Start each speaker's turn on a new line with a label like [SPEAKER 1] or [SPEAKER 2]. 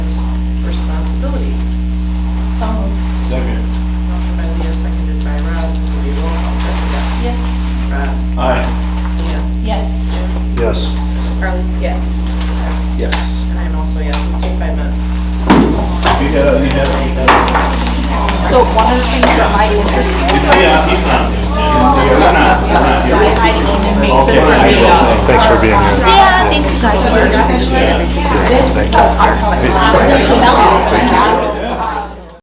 [SPEAKER 1] Scott?
[SPEAKER 2] Aye.
[SPEAKER 1] Leah?
[SPEAKER 3] Yes.
[SPEAKER 1] Jim?
[SPEAKER 2] Yes.
[SPEAKER 1] Carly?
[SPEAKER 3] Yes.
[SPEAKER 2] Yes.
[SPEAKER 1] And I'm also a yes, it's your five minutes.
[SPEAKER 2] You gotta, you have, you gotta.
[SPEAKER 3] So one of the things that my interview.
[SPEAKER 2] You see, uh, he's not. We're not, we're not here. Okay.
[SPEAKER 3] uh,
[SPEAKER 4] Thanks for being here.
[SPEAKER 3] Yeah, thanks you guys.
[SPEAKER 2] Yeah.
[SPEAKER 3] This is our.